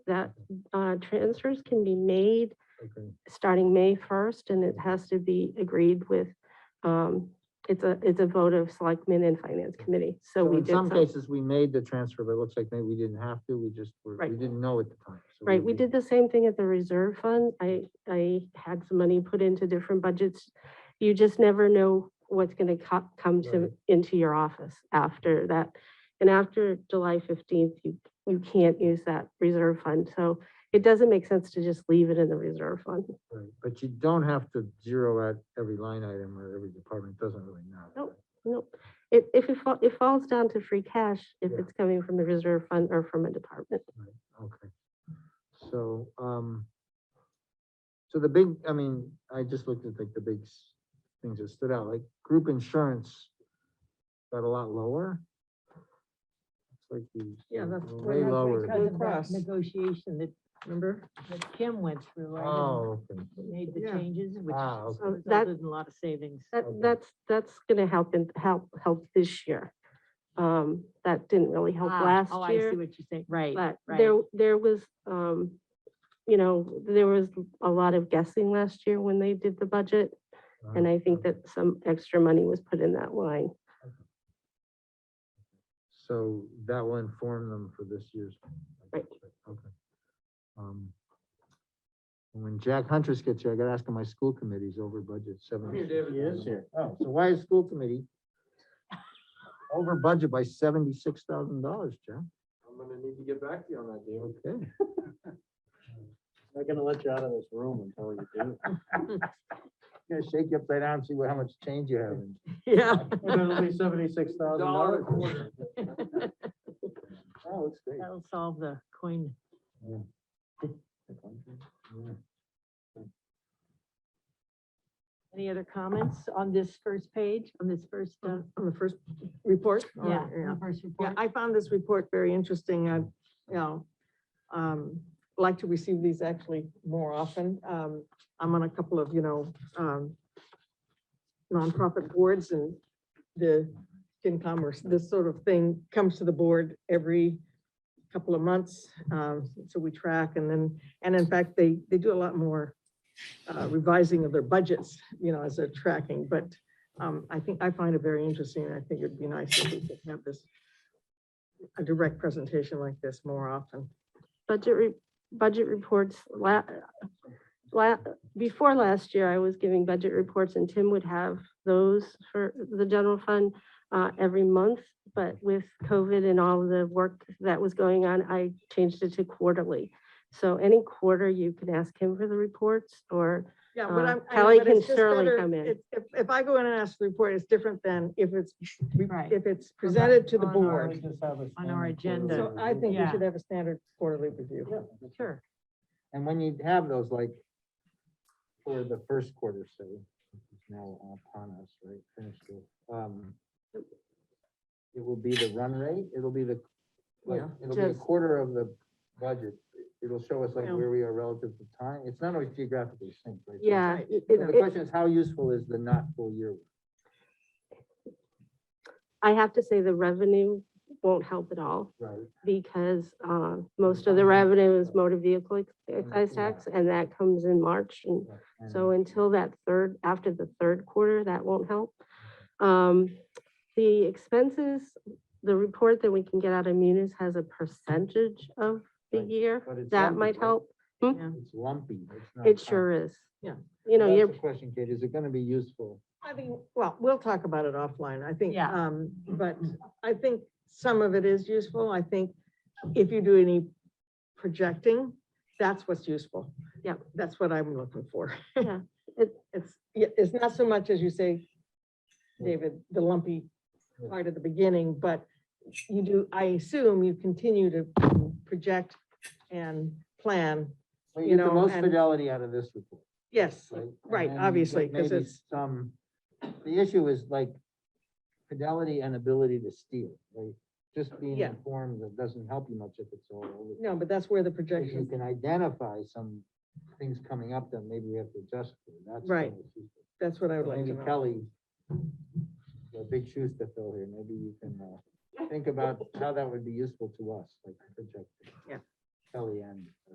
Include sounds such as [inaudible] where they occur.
that uh, transfers can be made Okay. starting May 1st, and it has to be agreed with, um, it's a, it's a vote of selectmen and finance committee. So So we in did some some, cases, we made the transfer, but it looks like maybe we didn't have to, we just, were- we Right. didn't know at the time. so right, we did the same thing at the reserve fund. I, I had some money put into different budgets. You just never know what's going to co- come to, Right. into your office after that. And after July 15th, you, you can't use that reserve fund. So it doesn't make sense to just leave it in the reserve fund. right, But you don't have to zero out every line item or every department, it doesn't really matter. Nope. Nope. It, if it fall, it falls down to free cash, if Yeah. it's coming from the reserve fund or from a department. Okay. So, um, so the big, I mean, I just looked at like the big s- things that stood out, like group insurance got a lot lower. It's like we. Yeah, that's Way that's lower. Because than- of that Cross. negotiation that, remember, that Kim went through. I didn't- Oh, okay. Made the Yeah. changes, which Ah, okay. So that- resulted in a lot of savings. That, Okay. that's, that's gonna help and help, help this year. Um, that didn't really help Ah, last Oh, I see year, what you're saying, right, but there, right. there was, um, you know, there was a lot of guessing last year when they did the budget. And I think that some extra money was put in that line. So that will inform them for this year's. Right. Okay. Um, When Jack Huntress gets here, I gotta ask him, my school committee's over budget seven. He is here. Oh, so why is school committee over budget by seventy-six thousand dollars, Jack? I'm gonna need to get back to you on that, David. Okay. Not gonna let you out of this room until you do. [laughs] Gonna shake you upside down, see what, how much change you have. in- Yeah. It'll be seventy-six thousand dollars. [laughs] Oh, it's great. That'll solve the coin. Any other comments on this first page, on this first, uh, On on the first report? or- yeah, on the first Yeah, report? I found this report very interesting. I, you know, um, like to receive these actually more often. Um, I'm on a couple of, you know, um, nonprofit boards and the in commerce, this sort of thing comes to the board every couple of months. Um, so we track and then, and in fact, they, they do a lot more uh, revising of their budgets, you know, as they're tracking, but um, I think, I find it very interesting. and I think it'd be nice if we could have this a direct presentation like this more often. budget, re- budget reports la- la- before last year, I was giving budget reports and Tim would have those for the general fund uh, every month. But with COVID and all the work that was going on, I changed it to quarterly. So any quarter, you can ask him for the reports or, Yeah, Uh, but I'm. I know, Kelly but can it's just surely better come in. If, if- if I go in and ask the report, it's different than if it's, re- Right. if it's presented to the On our- board. On our agenda. So I think we Yeah. should have a standard quarterly review. Sure. And when you have those, like, for the first quarter, so it's now upon us, right, finished it. um, It will be the run rate, it'll be the, like, Yeah. it'll be a Just- quarter of the budget. It'll show us like Yeah. where we are relative to time. It's not always geographically synced, right? So yeah. Right. it- The it- it- question is, how useful is the not full year? I have to say the revenue won't help at all Right. because uh, most of the revenue is motor vehicle excise Yeah. tax and that comes in March and And- So until that third, after the third quarter, that won't help. Um, The expenses, the report that we can get out of Munis has a percentage of the Right, year. but it's That lumpy, might right? help. It's lumpy. it's not It con- sure is. Yeah. You know, That's you're, the Question, Kate, is it gonna be useful? I think, well, we'll talk about it offline, I think. Yeah. Um, but I think some of it is useful. I think if you do any projecting, that's what's useful. Yep. That's what I'm looking for. Yeah, [laughs] it- It's, yeah, it's not so much as you say, David, the lumpy part at the beginning, but you do, I assume you continue to project and plan. Well, You you get the know, most and- fidelity out of this report. Yes, right? And right, then you obviously, get 'cause maybe it's- Some, the issue is like fidelity and ability to steal, right? Just being Yeah. informed, that doesn't help you much if it's all. over. no, but that's where the If you projection, can identify some things coming up that maybe we have to adjust to, that's. Right. kind of useful. that's what I would So like to Maybe know. Kelly, the big shoes to fill here, maybe you can, uh, think about how that would be useful to us, like project. Kellyanne.